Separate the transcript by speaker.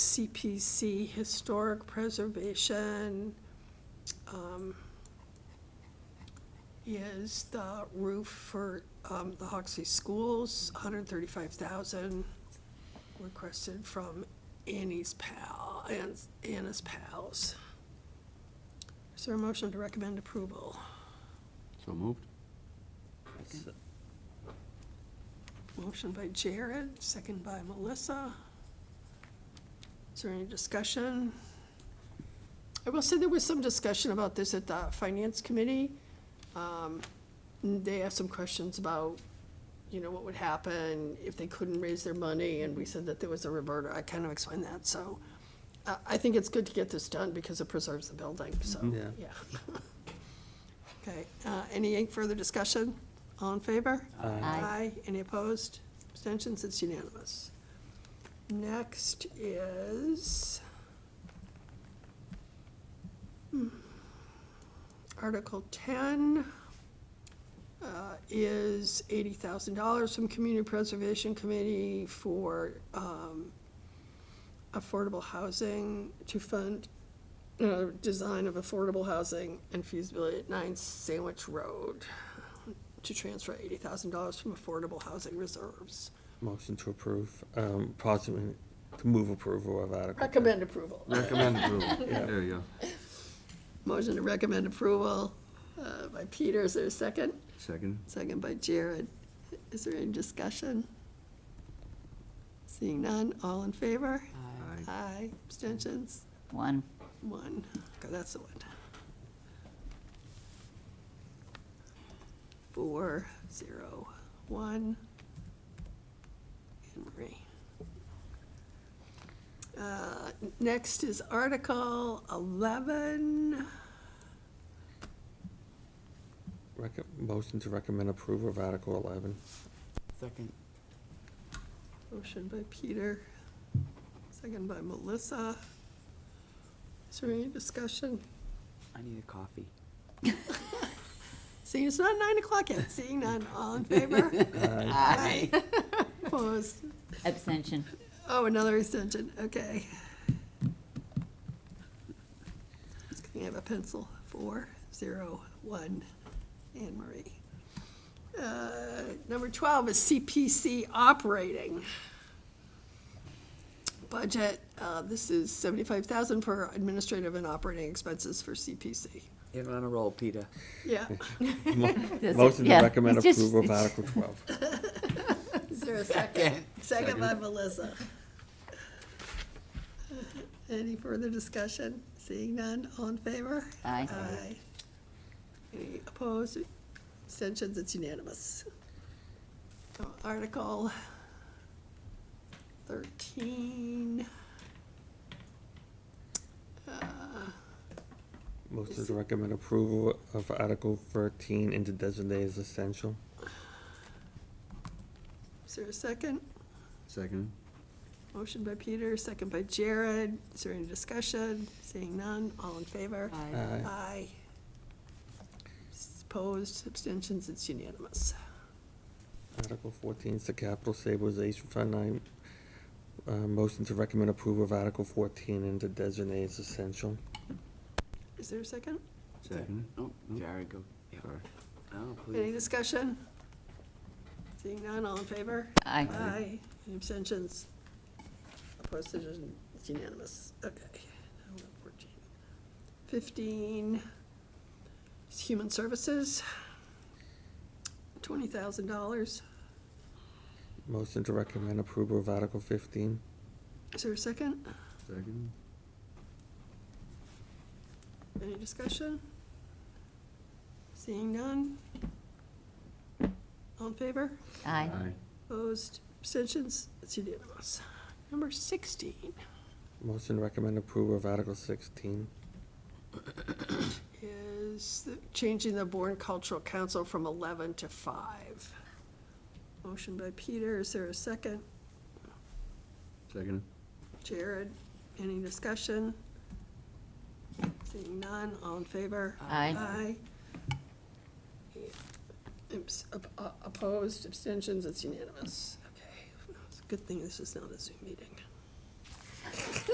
Speaker 1: CPC, Historic Preservation, um, is the roof for um, the Hoxsey Schools, $135,000 requested from Annie's pal, Ann's- Anna's pals. Is there a motion to recommend approval?
Speaker 2: So moved?
Speaker 1: Motion by Jared, second by Melissa. Is there any discussion? I will say there was some discussion about this at the Finance Committee. Um, and They asked some questions about, you know, what would happen if they couldn't raise their money, and we said that there was a reverter. I kind of explained that, so I, I think it's good to get this done because it preserves the building, so,
Speaker 3: Mhm.
Speaker 1: yeah. Okay, uh, any further discussion? All in favor?
Speaker 4: Aye.
Speaker 1: Any opposed? Abstentions? It's unanimous. Next is hmm, Article 10 uh, is $80,000 from Community Preservation Committee for um, affordable housing to fund uh, design of affordable housing and feasibility at 9 Sandwich Road to transfer eighty thousand dollars from affordable housing reserves.
Speaker 3: Motion to approve, um, possibly to move approval of Article. 10.
Speaker 1: Recommend approval.
Speaker 2: Recommend approval.
Speaker 3: Yeah.
Speaker 2: There you go.
Speaker 1: Motion to recommend approval uh, by Peter, is there a second?
Speaker 2: Second?
Speaker 1: Second by Jared. Is there any discussion? Seeing none, all in favor?
Speaker 2: Aye.
Speaker 1: Aye, abstentions?
Speaker 4: One.
Speaker 1: One, Okay, that's the one. Four, zero, one. And Marie. Uh, Next is Article 11.
Speaker 3: Recom- Motion to recommend approval of Article eleven.
Speaker 4: Second.
Speaker 1: Motion by Peter, second by Melissa. Is there any discussion?
Speaker 4: I need a coffee.
Speaker 1: Seeing it's not 9 o'clock yet, seeing none, all in favor?
Speaker 3: Aye.
Speaker 4: Aye.
Speaker 1: Opposed?
Speaker 4: Abstention.
Speaker 1: Oh, another extension, okay. Just gonna have a pencil, four, zero, one, Anne Marie. Uh, Number twelve is CPC operating. Budget, uh, this is seventy-five thousand for administrative and operating expenses for CPC.
Speaker 5: You're on a roll, Peter.
Speaker 1: Yeah,
Speaker 3: Mo-
Speaker 4: This-
Speaker 3: Motion to
Speaker 4: yeah,
Speaker 3: recommend
Speaker 4: it's just-
Speaker 3: approval of
Speaker 4: it's-
Speaker 3: Article twelve.
Speaker 1: is there a second? Second by Melissa. Any further discussion? Seeing none, all in favor?
Speaker 4: Aye.
Speaker 1: Aye. Any opposed? Abstentions? It's unanimous. Uh, Article thirteen. Uh,
Speaker 3: Motion to recommend approval of Article thirteen and to designate as essential.
Speaker 1: Is there a second?
Speaker 2: Second?
Speaker 1: Motion by Peter, second by Jared. Is there any discussion? Seeing none, all in favor?
Speaker 3: Aye.
Speaker 1: Aye. Opposed, abstentions, it's unanimous.
Speaker 3: Article fourteen is the capital stabilization fund. I, uh, motion to recommend approval of Article fourteen and to designate as essential.
Speaker 1: Is there a second?
Speaker 2: Second?
Speaker 5: Oh, Jared, go. Yeah.
Speaker 2: Sorry.
Speaker 5: Oh,
Speaker 1: Any
Speaker 5: please.
Speaker 1: discussion? Seeing none, all in favor?
Speaker 4: Aye.
Speaker 1: Aye. Any abstentions? Opposed, decision, it's unanimous. Okay. Now we're at 14. Fifteen is human services, twenty thousand dollars.
Speaker 3: Motion to recommend approval of Article fifteen.
Speaker 1: Is there a second?
Speaker 2: Second?
Speaker 1: Any discussion? Seeing none? All in favor?
Speaker 4: Aye.
Speaker 1: Opposed, abstentions, it's unanimous. Number sixteen
Speaker 3: Motion to recommend approval of Article sixteen.
Speaker 1: is the- changing the Bourne Cultural Council from eleven to five. Motion by Peter, is there a second?
Speaker 2: Second?
Speaker 1: Jared, any discussion? Seeing none, all in favor?
Speaker 4: Aye.
Speaker 1: Aye. Oops, op- uh, o- Opposed, abstentions, it's unanimous. Okay, it's a good thing this is not a Zoom meeting.